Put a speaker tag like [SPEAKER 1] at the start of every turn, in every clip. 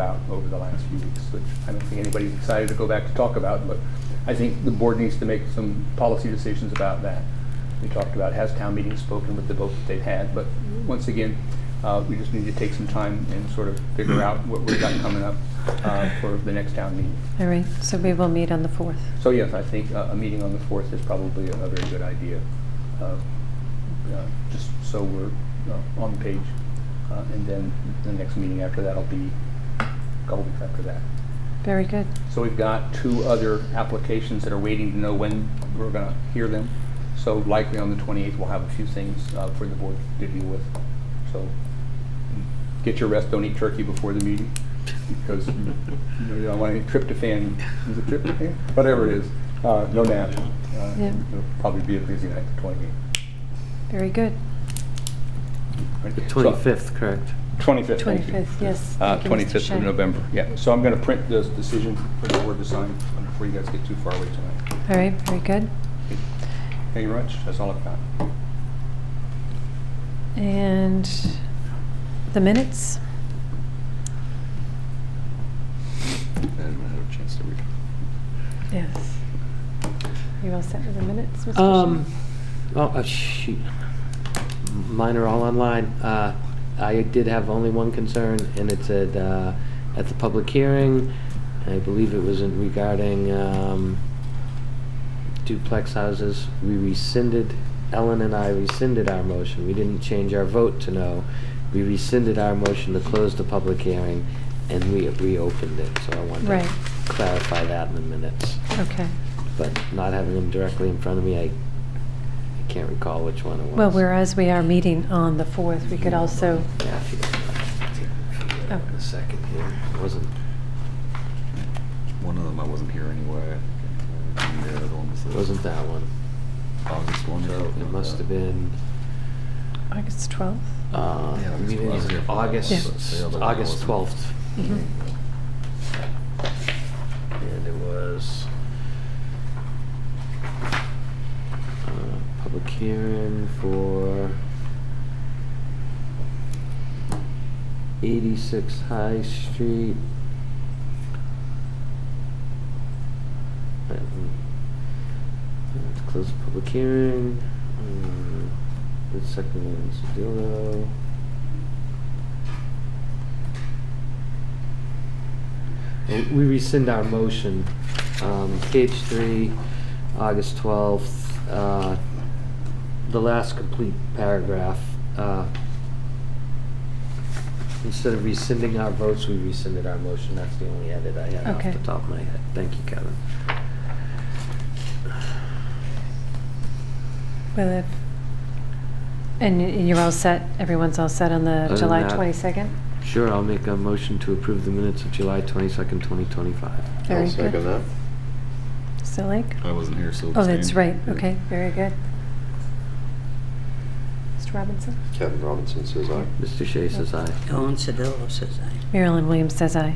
[SPEAKER 1] about over the last few weeks, which I don't think anybody's excited to go back to talk about, but I think the board needs to make some policy decisions about that. We talked about, has town meeting spoken with the vote that they've had, but once again, uh, we just need to take some time and sort of figure out what we've got coming up uh, for the next town meeting.
[SPEAKER 2] All right, so we will meet on the 4th.
[SPEAKER 1] So yes, I think uh, a meeting on the 4th is probably a a very good idea, uh, uh, just so we're uh, on the page. Uh, And then the next meeting after that will be a couple weeks after that.
[SPEAKER 2] Very good.
[SPEAKER 1] So we've got two other applications that are waiting to know when we're going to hear them. So likely on the 28th, we'll have a few things uh, for the board to deal with. So get your rest, don't eat turkey before the meeting, because you know, you don't want any tryptophan, is it tryptophan? Whatever it is, uh, no nap. Uh,
[SPEAKER 2] Yeah.
[SPEAKER 1] It'll probably be a busy night, the 28th.
[SPEAKER 2] Very good.
[SPEAKER 1] right?
[SPEAKER 3] The
[SPEAKER 1] So-
[SPEAKER 3] 25th, correct?
[SPEAKER 1] 25th, thank you.
[SPEAKER 2] 25th, yes.
[SPEAKER 1] Uh,
[SPEAKER 2] Thank you, Mr.
[SPEAKER 1] 25th of
[SPEAKER 2] Shea.
[SPEAKER 1] November, yeah. So I'm going to print this decision for the board to sign before you guys get too far away tonight.
[SPEAKER 2] All right, very good.
[SPEAKER 1] Thank you very much, that's all I've got.
[SPEAKER 2] And the minutes?
[SPEAKER 4] I didn't have a chance to read.
[SPEAKER 2] Yes. You all set with the minutes, Mr. Shea?
[SPEAKER 3] Um, oh, oh, shoot. Mine are all online. Uh, I did have only one concern, and it said, uh, at the public hearing, I believe it was in regarding, um, duplex houses, we rescinded, Ellen and I rescinded our motion. We didn't change our vote to no. We rescinded our motion to close the public hearing, and we reopened it, so I wanted
[SPEAKER 2] Right.
[SPEAKER 3] to clarify that in the minutes
[SPEAKER 2] Okay.
[SPEAKER 3] but not having them directly in front of me, I, I can't recall which one it was.
[SPEAKER 2] Well, whereas we are meeting on the 4th, we could also,
[SPEAKER 3] Yeah, if you don't mind, I'll take it
[SPEAKER 2] Oh.
[SPEAKER 3] out in a second here. It wasn't,
[SPEAKER 4] One of them I wasn't here anyway. And the other one was the
[SPEAKER 3] it wasn't that one.
[SPEAKER 4] August one.
[SPEAKER 3] It must have been,
[SPEAKER 2] August 12th?
[SPEAKER 3] uh,
[SPEAKER 4] Yeah, it was-
[SPEAKER 3] meeting
[SPEAKER 4] I was here
[SPEAKER 3] is
[SPEAKER 4] for that one, but the
[SPEAKER 3] August,
[SPEAKER 4] other one
[SPEAKER 3] August
[SPEAKER 4] wasn't.
[SPEAKER 3] twelfth.
[SPEAKER 2] Mhm.
[SPEAKER 4] Mm-hmm.
[SPEAKER 3] And it was, uh, public hearing for eighty-six High Street. Uh, Let's close the public hearing. Um, The second one is Sedillo. And We rescind our motion. Um, Page three, August twelfth, uh, the last complete paragraph. uh, Instead of rescinding our votes, we rescinded our motion. That's the only edit I had off
[SPEAKER 2] Okay.
[SPEAKER 3] the top of my head. Thank you, Kevin.
[SPEAKER 2] Well, if, and y- you're all set, everyone's all set on the
[SPEAKER 3] than
[SPEAKER 2] July
[SPEAKER 3] that-
[SPEAKER 2] 22nd?
[SPEAKER 3] Sure, I'll make a motion to approve the minutes of July twenty-second, twenty twenty-five.
[SPEAKER 2] Very
[SPEAKER 4] I'll second
[SPEAKER 2] good.
[SPEAKER 4] that.
[SPEAKER 2] Still like?
[SPEAKER 4] I wasn't here, so.
[SPEAKER 2] Oh, that's
[SPEAKER 4] abstained.
[SPEAKER 2] right, okay, very good. Mr. Robinson?
[SPEAKER 5] Kevin Robinson says aye.
[SPEAKER 3] Mr. Shea says aye.
[SPEAKER 6] Ellen Sedillo says aye.
[SPEAKER 2] Marilyn Williams says aye.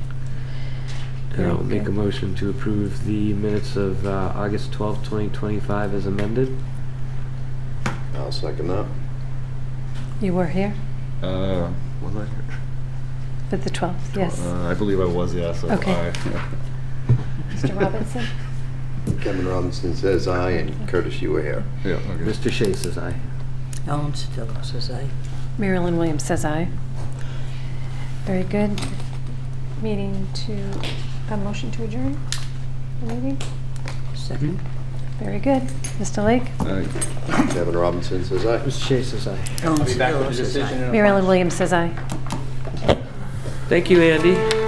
[SPEAKER 3] And I'll make a
[SPEAKER 2] Okay.
[SPEAKER 3] motion to approve the minutes of uh, August twelfth, twenty twenty-five as amended.
[SPEAKER 5] I'll second that.
[SPEAKER 2] You were here
[SPEAKER 4] Uh, was I here?
[SPEAKER 2] for the 12th, yes.
[SPEAKER 4] Uh, I believe I was, yeah, so
[SPEAKER 2] Okay.
[SPEAKER 4] aye.
[SPEAKER 2] Mr. Robinson?
[SPEAKER 5] Kevin Robinson says aye, and Curtis, you were here.
[SPEAKER 4] Yeah, okay.
[SPEAKER 3] Mr. Shea says aye.
[SPEAKER 6] Ellen Sedillo says aye.
[SPEAKER 2] Marilyn Williams says aye. Very good. Meeting to, a motion to adjourn the meeting?
[SPEAKER 6] Second.
[SPEAKER 2] Very good. Mr. Lake?
[SPEAKER 4] Aye.
[SPEAKER 5] Kevin Robinson says aye.
[SPEAKER 3] Mr. Shea says aye.
[SPEAKER 6] Ellen
[SPEAKER 1] I'll be back with
[SPEAKER 6] Sedillo
[SPEAKER 1] the
[SPEAKER 6] says aye.
[SPEAKER 1] decision in a
[SPEAKER 2] Marilyn
[SPEAKER 1] month.
[SPEAKER 2] Williams says aye.
[SPEAKER 3] Thank you, Andy.